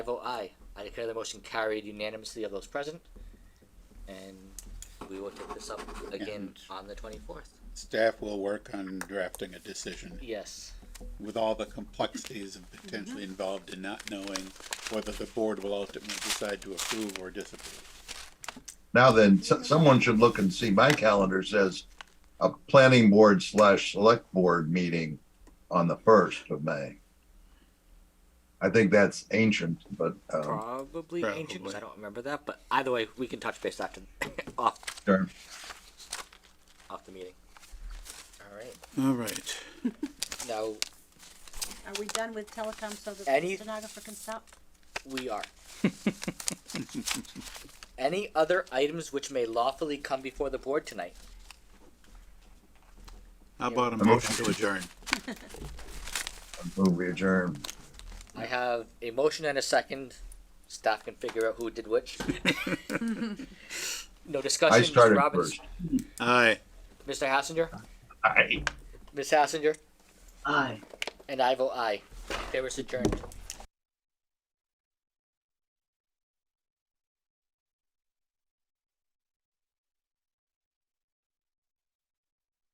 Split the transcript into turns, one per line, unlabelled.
I vote aye. I declare the motion carried unanimously of those present. And we will take this up again
And-
on the twenty-fourth.
Staff will work on drafting a decision
Yes,
with all the complexities of potentially involved in not knowing whether the board will ultimately decide to approve or disapprove.
Now then, s- someone should look and see, my calendar says a planning board slash select board meeting on the first of May. I think that's ancient, but, um,
probably ancient, 'cause
Probably.
I don't remember that, but either way, we can touch base after, off,
sure.
off the meeting. All right,
All right.
now,
Are we done with telecom so that
Any-
the stenographer can stop?
We are. Any other items which may lawfully come before the board tonight?
How about a
The motion.
motion to adjourn?
Move adjourned.
I have a motion and a second. Staff can figure out who did which. No discussion,
I
Mr.
started
Robbins,
first.
Aye.
Mr. Hassinger? Aye. Ms. Hassinger? Aye. And I vote aye. They were adjourned.